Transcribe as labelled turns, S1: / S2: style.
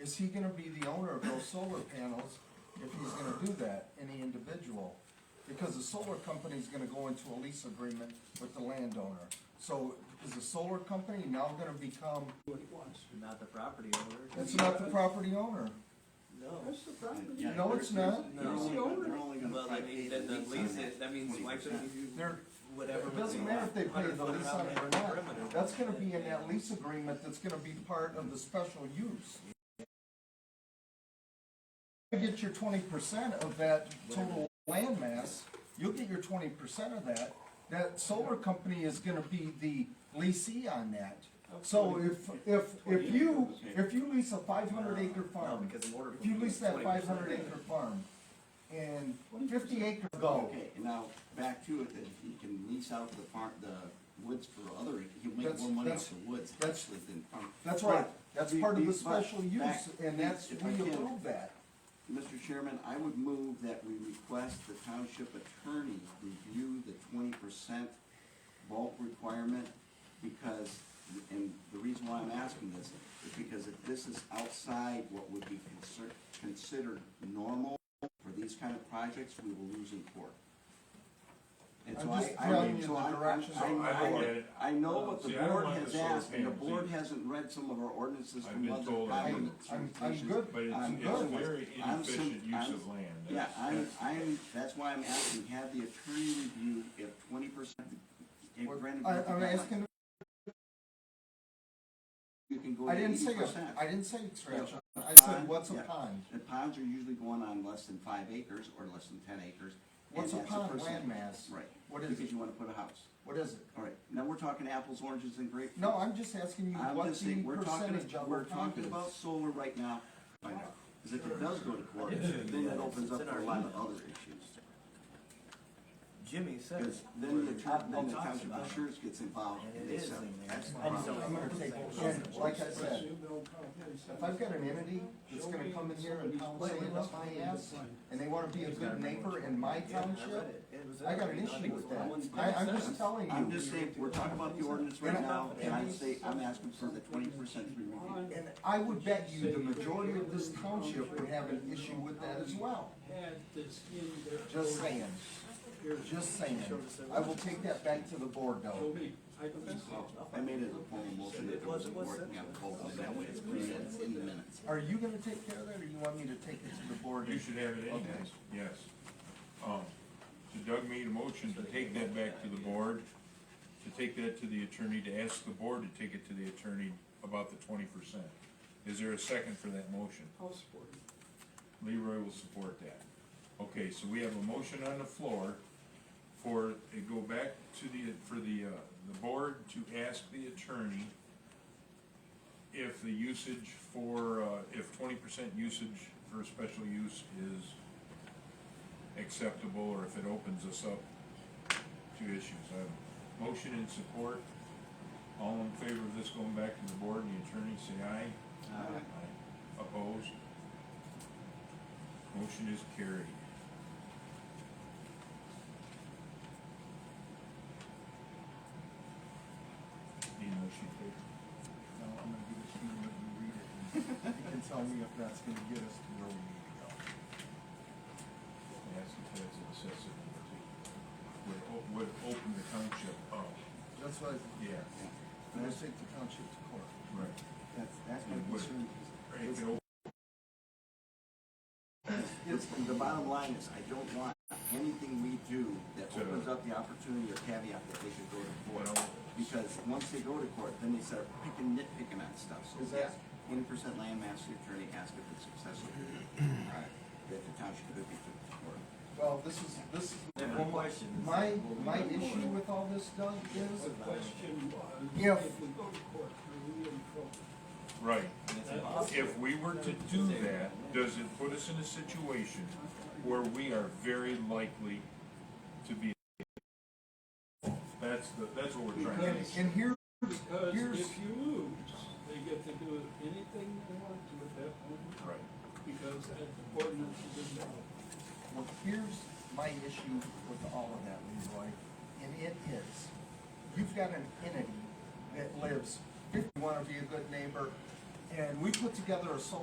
S1: is he gonna be the owner of those solar panels if he's gonna do that, any individual? Because the solar company's gonna go into a lease agreement with the landowner. So is the solar company now gonna become,
S2: what he wants.
S3: Not the property owner.
S1: it's not the property owner?
S3: No.
S2: That's the property.
S1: No, it's not.
S2: He's the owner.
S3: Well, I mean, then the lease, it- that means why couldn't you,
S1: They're,
S3: whatever.
S1: it doesn't matter if they pay the lease on it or not,
S3: perimeter.
S1: that's gonna be in that lease agreement that's gonna be part of the special use. You get your twenty percent of that total land mass, you'll get your twenty percent of that, that solar company is gonna be the leasee on that. So if, if, if you, if you lease a five hundred acre
S3: No,
S1: farm,
S3: because in order.
S1: if you
S3: for-
S1: lease that
S3: 20%
S1: five hundred acre farm, and fifty acre go,
S4: Okay, and now, back to it, that he can lease out the farm, the woods for other, he'll make
S1: That's-
S4: more money
S1: that's-
S4: off the woods,
S1: that's-
S4: actually, than farm.
S1: That's right,
S4: But
S1: that's
S4: be-
S1: part of the
S4: be- but
S1: special use,
S4: back-
S1: and that's,
S4: if I
S1: we
S4: can,
S1: approve that.
S4: Mr. Chairman, I would move that we request the township attorney review the twenty percent bulk requirement, because, and the reason why I'm asking this is because if this is outside what would be considered, considered normal for these kind of projects, we will lose in court. And so
S1: I'm
S4: I,
S1: just
S4: I,
S1: telling you
S4: so
S1: the
S4: I,
S1: direction.
S4: I-
S5: I
S4: I-
S5: don't get it.
S4: I know what the
S5: See, I don't
S4: board
S5: want
S4: has
S5: this sort of
S4: asked, and the
S5: thing,
S4: board
S5: see.
S4: hasn't read some of our ordinances
S5: I've
S4: from
S5: been
S4: other
S5: told I
S4: county
S1: I'm-
S5: haven't.
S1: I'm
S4: jurisdictions.
S1: good.
S5: But it's,
S4: I'm
S5: it's
S4: good with-
S5: very
S4: I'm sim-
S5: inefficient use
S4: I'm-
S5: of land.
S4: Yeah,
S5: That's-
S4: I'm,
S5: that's-
S4: I'm, that's why I'm asking, have the attorney review if twenty percent, if granted.
S1: I, I'm asking,
S4: You can go
S1: I
S4: to
S1: didn't
S4: eighty
S1: say,
S4: percent.
S1: a- I didn't say extraction, I said,
S4: Pond,
S1: what's a
S4: yeah.
S1: pond?
S4: And ponds are usually going on less than five acres or less than ten acres. and
S1: What's a
S4: that's
S1: pond
S4: percent.
S1: landmass?
S4: Right.
S1: What is
S4: Because
S1: it,
S4: you wanna put a house.
S1: what is it?
S4: All right, now we're talking apples, oranges, and grapefruit.
S1: No, I'm just asking you
S4: I'm
S1: what
S4: just
S1: the
S4: saying, we're talking,
S1: percentage of
S4: we're
S1: a pond
S4: talking
S1: is.
S4: about solar right now. Because if it does go to court, then that opens up for a lot of other issues.
S3: Jimmy said.
S4: Because then the town, then the
S3: Talks
S4: township
S3: about it.
S4: insurance gets involved
S3: And
S4: and
S3: it
S4: they
S3: is
S4: sell.
S3: in there.
S4: That's the
S3: I just
S4: problem.
S1: I'm gonna take over, and like I said, if I've got an entity that's gonna come in here and pound sand up my ass, and they wanna be a good neighbor in my
S3: Yeah, I read
S1: township,
S3: it. It was
S1: I got an
S3: everything. I
S1: issue
S3: think
S1: with
S3: it
S1: that,
S3: was one-
S1: I, I'm just telling
S4: I'm
S1: you,
S4: just saying, we're talking about the ordinance right
S1: And I-
S4: now, and I'm saying, I'm asking for the twenty percent review.
S1: and I would bet you the majority of this township would have an issue with that as well.
S2: Had this in their.
S1: Just saying,
S2: Here's
S1: just saying. I will take that back to the board
S2: Show
S1: though.
S2: me. I don't think so.
S4: I made it a formal motion that it wasn't working out cold, and that way it's clean and it's in the minutes.
S1: Are you gonna take care of that or you want me to take it to the board?
S5: You should have it anyways, yes. Um, so Doug made a motion to take that back to the board, to take that to the attorney, to ask the board to take it to the attorney about the twenty percent. Is there a second for that motion?
S2: I'll support it.
S5: Leroy will support that. Okay, so we have a motion on the floor for, it go back to the, for the, uh, the board to ask the attorney if the usage for, uh, if twenty percent usage for a special use is acceptable, or if it opens us up to issues. I have a motion and support. All in favor of this going back to the board and the attorney, say aye.
S4: Aye.
S5: Aye. Opposed? Motion is carried. Need a motion to take?
S1: No, I'm gonna give it to you and you read it. and You can tell me if that's gonna get us to where we need to go.
S5: Yes, if that's excessive, would, o- would open the township up.
S1: That's why,
S5: Yeah.
S1: I'm gonna take the township to court.
S5: Right.
S4: That's, that's my concern.
S5: Right, if it op-
S4: It's, the bottom line is, I don't want anything we do that opens up the opportunity or caveat that they could go to court. Because once they go to court, then they start picking, nitpicking on stuff, so
S1: Is that-
S4: twenty percent land mass, the attorney asked if it's successful. That the township could be took to court.
S1: Well, this is, this is.
S3: Different question.
S1: My, my issue with all this, Doug,
S2: The
S1: is
S2: question was,
S1: If-
S2: if we go to court, are we in trouble?
S5: Right.
S3: It's impossible.
S5: If we were to do that, does it put us in a situation where we are very likely to be? That's the, that's what we're trying to
S1: And,
S5: do.
S1: and here,
S2: Because
S1: Here's-
S2: if you lose, they get to do anything they want to at that point,
S5: Right.
S2: because that ordinance is in there.
S1: well, here's my issue with all of that, Leroy, and it is, you've got an entity that lives, if you wanna be a good neighbor, and we put together a solar